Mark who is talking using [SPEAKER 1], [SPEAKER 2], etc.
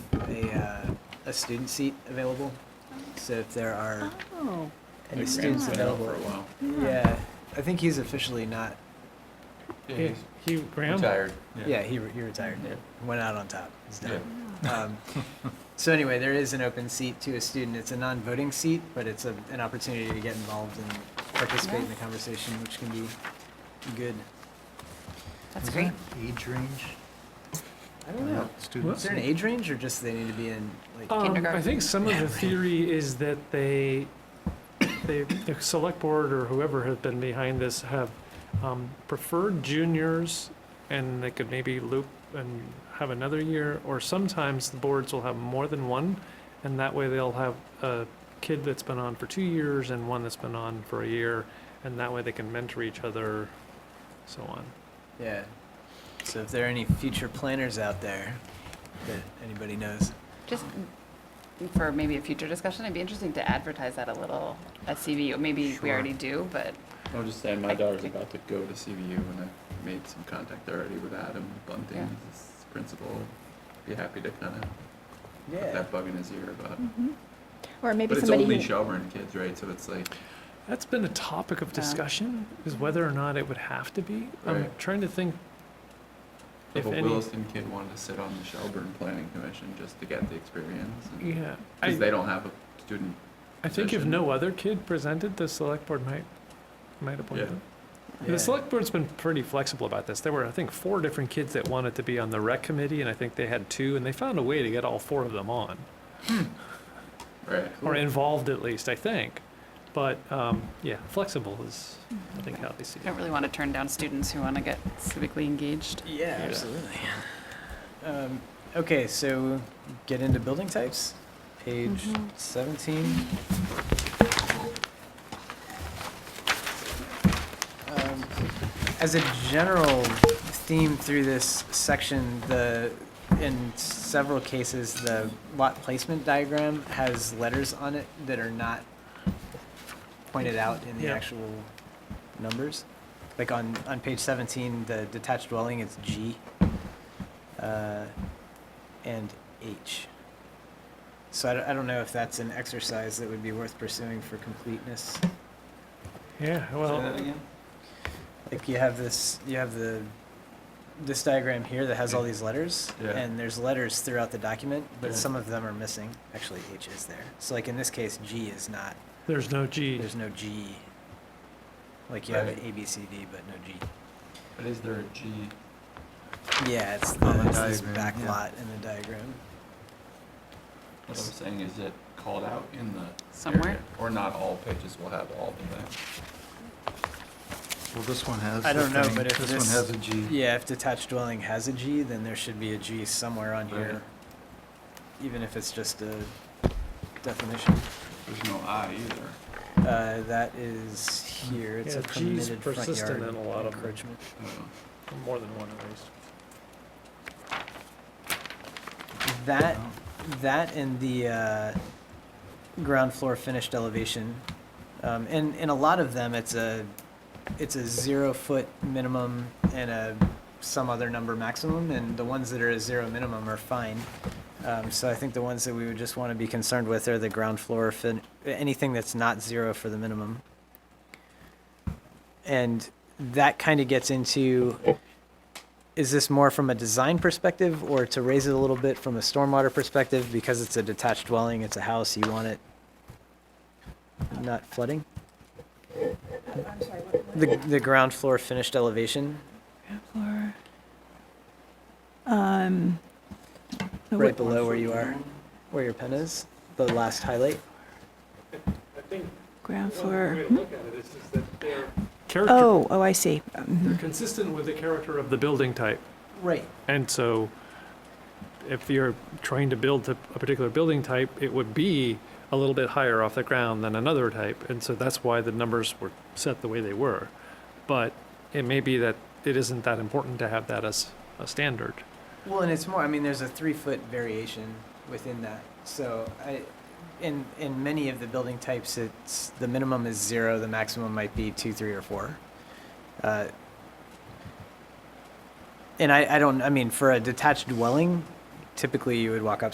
[SPEAKER 1] a, uh, a student seat available. So if there are
[SPEAKER 2] Oh,
[SPEAKER 1] any
[SPEAKER 3] Like
[SPEAKER 1] students
[SPEAKER 3] Graham's been out
[SPEAKER 1] available.
[SPEAKER 3] For a while.
[SPEAKER 2] yeah.
[SPEAKER 1] Yeah, I think he's officially not,
[SPEAKER 4] Yeah, he, Graham?
[SPEAKER 3] Retired.
[SPEAKER 1] yeah, he, re- he retired,
[SPEAKER 3] Yeah.
[SPEAKER 1] went out on top, he's done. Um, So anyway, there is an open seat to a student. It's a non-voting seat, but it's a, an opportunity to get involved and participate in the conversation, which can be good.
[SPEAKER 2] That's great.
[SPEAKER 5] Age range?
[SPEAKER 1] I don't know. Is
[SPEAKER 5] Students?
[SPEAKER 1] there an age range or just they need to be in, like,
[SPEAKER 4] Um, I
[SPEAKER 2] Kindergarten.
[SPEAKER 4] think some of the theory is that they, they, the select board or whoever has been behind this have um, preferred juniors, and they could maybe loop and have another year, or sometimes the boards will have more than one, and that way they'll have a kid that's been on for two years and one that's been on for a year, and that way they can mentor each other, so on.
[SPEAKER 1] yeah. So if there are any future planners out there that anybody knows.
[SPEAKER 2] Just for maybe a future discussion, it'd be interesting to advertise that a little at CVU. Maybe we
[SPEAKER 5] Sure.
[SPEAKER 2] already do, but
[SPEAKER 3] I'll just say my daughter's about to go to CVU and I've made some contact already with Adam Bunting,
[SPEAKER 2] Yeah.
[SPEAKER 3] he's his principal. Be happy to kind of put
[SPEAKER 1] Yeah.
[SPEAKER 3] that bug in his ear about.
[SPEAKER 6] Mm-hmm. Or maybe
[SPEAKER 3] But it's
[SPEAKER 6] somebody
[SPEAKER 3] only
[SPEAKER 6] who,
[SPEAKER 3] Shelburne kids, right? So it's like,
[SPEAKER 4] That's been a topic of
[SPEAKER 2] Yeah.
[SPEAKER 4] discussion, is whether or not it would have to be. I'm
[SPEAKER 3] Right.
[SPEAKER 4] trying to think
[SPEAKER 3] if
[SPEAKER 4] If
[SPEAKER 3] a
[SPEAKER 4] any-
[SPEAKER 3] Williston kid wanted to sit on the Shelburne Planning Commission just to get the experience.
[SPEAKER 4] Yeah,
[SPEAKER 3] Because they
[SPEAKER 4] I,
[SPEAKER 3] don't have a student,
[SPEAKER 4] I think if
[SPEAKER 3] position.
[SPEAKER 4] no other kid presented, the select board might, might appoint
[SPEAKER 3] Yeah.
[SPEAKER 4] them.
[SPEAKER 1] Yeah.
[SPEAKER 4] The select board's been pretty flexible about this. There were, I think, four different kids that wanted to be on the rec committee, and I think they had two, and they found a way to get all four of them on,
[SPEAKER 3] right?
[SPEAKER 4] or involved at least, I think. But, um, yeah, flexible is, I think, how they see
[SPEAKER 2] I
[SPEAKER 4] it.
[SPEAKER 2] don't really want to turn down students who want to get civically engaged.
[SPEAKER 1] Yeah, absolutely. Um, okay, so get into building types, page 17. Um, as a general theme through this section, the in several cases the lot placement diagram has letters on it that are not pointed out in the
[SPEAKER 4] Yeah.
[SPEAKER 1] actual numbers. Like on, on page 17, the detached dwelling, it's G uh, and H. So I don't, I don't know if that's an exercise that would be worth pursuing for completeness.
[SPEAKER 4] Yeah, well,
[SPEAKER 1] Like you have this, you have the, this diagram here that has all these letters,
[SPEAKER 3] Yeah.
[SPEAKER 1] and there's letters throughout the document, but
[SPEAKER 3] Yeah.
[SPEAKER 1] some of them are missing. Actually, H is there. So like in this case, G is not,
[SPEAKER 4] there's no G.
[SPEAKER 1] there's no G. Like you have
[SPEAKER 3] Right.
[SPEAKER 1] A, B, C, D, but no G.
[SPEAKER 3] But is there a G?
[SPEAKER 1] Yeah, it's
[SPEAKER 5] On
[SPEAKER 1] the,
[SPEAKER 5] the
[SPEAKER 1] it's this
[SPEAKER 5] diagram,
[SPEAKER 1] back
[SPEAKER 5] yeah.
[SPEAKER 1] lot in the diagram.
[SPEAKER 3] What I'm saying is it called out in the.
[SPEAKER 2] Somewhere?
[SPEAKER 3] area? Or not all pages will have all of that.
[SPEAKER 5] Well, this one has.
[SPEAKER 1] I
[SPEAKER 5] the
[SPEAKER 1] don't know,
[SPEAKER 5] thing.
[SPEAKER 1] but if
[SPEAKER 5] one
[SPEAKER 1] this-
[SPEAKER 5] has a G.
[SPEAKER 1] Yeah, if detached dwelling has a G, then there should be a G somewhere on here. Even if it's just a definition.
[SPEAKER 3] There's no I either.
[SPEAKER 1] Uh, that is here, it's a
[SPEAKER 4] Yeah, G's
[SPEAKER 1] permitted front
[SPEAKER 4] persistent
[SPEAKER 1] yard
[SPEAKER 4] in a lot of them.
[SPEAKER 1] encroachment.
[SPEAKER 3] Oh.
[SPEAKER 4] More than one at least.
[SPEAKER 1] That, that and the, uh, ground floor finished elevation. Um, and, and a lot of them, it's a, it's a zero foot minimum and a, some other number maximum, and the ones that are a zero minimum are fine. Um, so I think the ones that we would just wanna be concerned with are the ground floor fin, anything that's not zero for the minimum. And that kinda gets into, is this more from a design perspective or to raise it a little bit from a stormwater perspective? Because it's a detached dwelling, it's a house, you want it not flooding? The, the ground floor finished elevation,
[SPEAKER 6] or, um, oh, the
[SPEAKER 1] right
[SPEAKER 6] wood-
[SPEAKER 1] below where you are, where your pen is, the last highlight.
[SPEAKER 6] ground
[SPEAKER 4] Oh,
[SPEAKER 6] floor.
[SPEAKER 4] Character,
[SPEAKER 6] Oh, oh, I see. Um,
[SPEAKER 4] they're consistent with the character of the building type.
[SPEAKER 1] Right.
[SPEAKER 4] And so if you're trying to build a a particular building type, it would be a little bit higher off the ground than another type. And so that's why the numbers were set the way they were. But it may be that it isn't that important to have that as a standard.
[SPEAKER 1] Well, and it's more, I mean, there's a three foot variation within that. So I, in, in many of the building types, it's, the minimum is zero, the maximum might be two, three, or four. Uh, And I, I don't, I mean, for a detached dwelling, typically you would walk up